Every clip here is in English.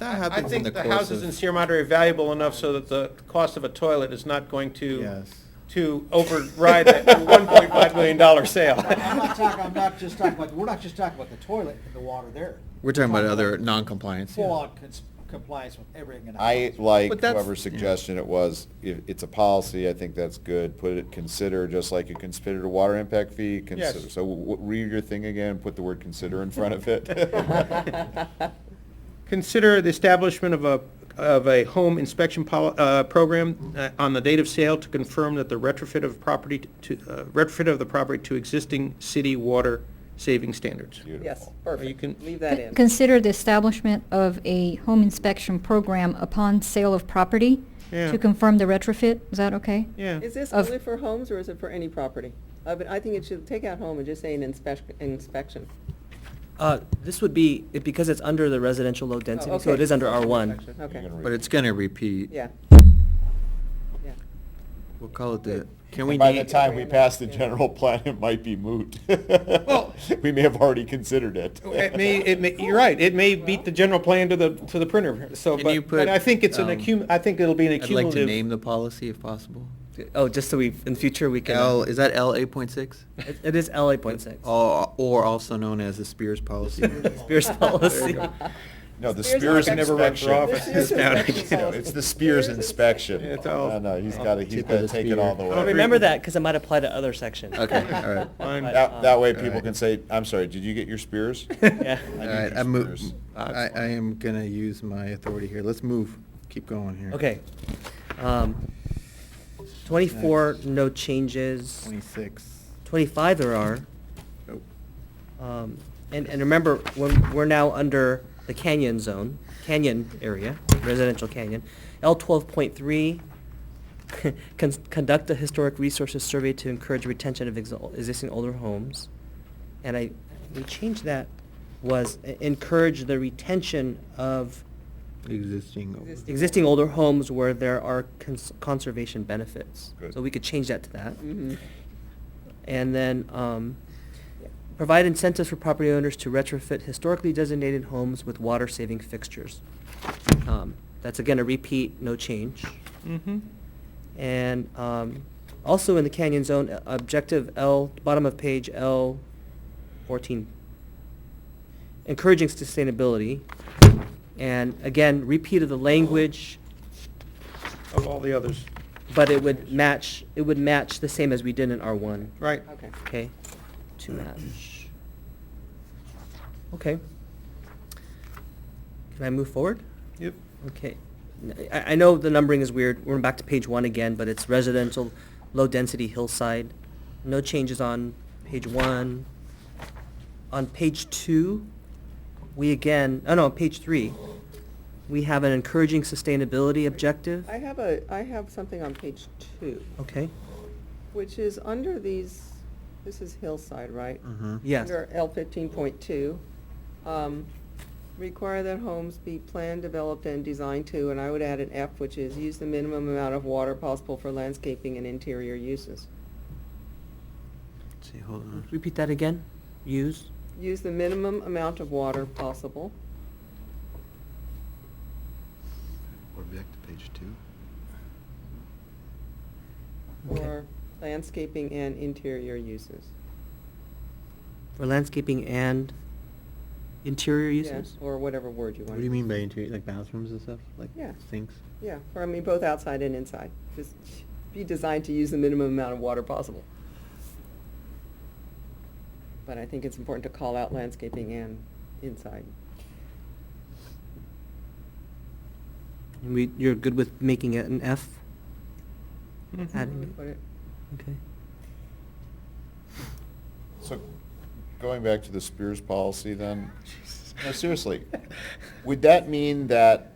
I happens in think the the course of? houses in Sierra Madre are valuable enough so that the cost of a toilet is not going to, Yes. to override that one point five million dollar sale. I'm not talking, I'm not just talking about, we're not just talking about the toilet and the water there. We're talking about other non-compliance. yeah. Full on cons- compliance with everything in the I house. like But that's- whoever's suggestion it was, if it's a policy, I think that's good, put it, consider, just like you considered a water impact fee, Yes. consider, so w- read your thing again, put the word consider in front of it. Consider the establishment of a, of a home inspection pol, uh, program uh, on the date of sale to confirm that the retrofit of property to, uh, retrofit of the property to existing city water saving standards. Yes, Beautiful. can- perfect. Leave that in. Consider the establishment of a home inspection program upon sale of property Yeah. to confirm the retrofit. Is that okay? Yeah. Is this Of- only for homes or is it for any property? I mean, I think it should take out home and just say an inspection, inspection. Uh, This would be, it- because it's under the residential low Oh, density, so it okay. is under Inspection, R1. Okay, You're gonna But read- it's gonna repeat. yeah. Yeah. We'll call it the, Good. can we By the name, time we pass the general plan, it might be moot. We may have already considered it. It may, it may, you're right, it may beat the general plan to the, to the printer, so, Can you but, but put, I think it's an um, accum, I think it'll be an I'd like to name accumulative. the policy if possible. Oh, just so we, in future, we can. L, is that L eight point six? It it is L 8.6. Or, or also known as the Spears policy. Spears policy. No, the Spears Spears inspection. Never run for inspection. office. Spears inspection No, It's the Spears inspection. It's all- No, no, he's got to, he's Tip of got to the take it spear. all the But way. Remember that, because it might apply to other sections. Okay, all right. All Fine. But, That, that way All people right. can say, I'm sorry, did you get your Spears? Yeah. I need right, uh, your I move, Spears. I, I am gonna use my authority here. Let's move, keep going here. Okay. Um, 24, no changes. Twenty-six. 25 there are. Oh, Um, And, and remember, when, we're now under the canyon zone, canyon area, residential canyon. L twelve point three, conduct a historic resources survey to encourage retention of exi- existing older homes. And I, we changed that, was e- encourage the retention of Existing. Existing. existing older homes where there are cons- conservation benefits. Good. So we could change that to that. Mhm. And then, um, provide incentives for property owners to retrofit historically designated homes with water-saving fixtures. Um, That's again a repeat, no change. Mhm. And, um, also in the canyon zone, uh, objective L, bottom of page L fourteen. Encouraging sustainability, and again, repeat of the language, Of all the others, but it would match, it would match the same as we did in R one. right. Okay. Okay, to match. Okay. Can I move forward? Yep. Okay. N- I, I know the numbering is weird. We're back to page one again, but it's residential, low-density hillside. No changes on page one. On page two, we again, oh no, on page three, we have an encouraging sustainability objective. I have a, I have something on page two, Okay, which is under these, this is hillside, right? Mm-hmm. yes. Under L fifteen point two, um, require that homes be planned, developed, and designed to, and I would add an F, which is use the minimum amount of water possible for landscaping and interior uses. See, hold on. Repeat that again. Use. Use the minimum amount of water possible We're back to page two. Okay. for landscaping and interior uses. For landscaping and interior Yeah, uses? Or whatever word you want. What do you mean by interior, like bathrooms and stuff, like Yeah. sinks? Yeah, or I mean, both outside and inside. Just be designed to use the minimum amount of water possible. But I think it's important to call out landscaping and inside. And we, you're good with making it an F? Mhm. Add- Where would we put it? Okay. So, going back to the Spears policy then, no, seriously, would that mean that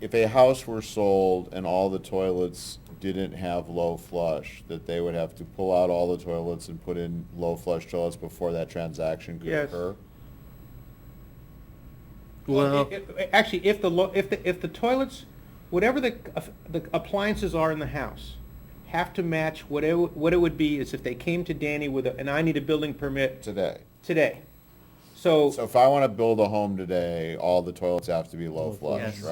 if a house were sold and all the toilets didn't have low flush, that they would have to pull out all the toilets and put in low flush toilets before that transaction could Yes. occur? Well, It- it- Actually, if the, lo- if the, if the toilets, whatever the, uh, the appliances are in the house, have to match whatever, what it would be is if they came to Danny with a, and I need a building permit Today. today. So. So if I want to build a home today, all the toilets have to be low flush, Yes. right?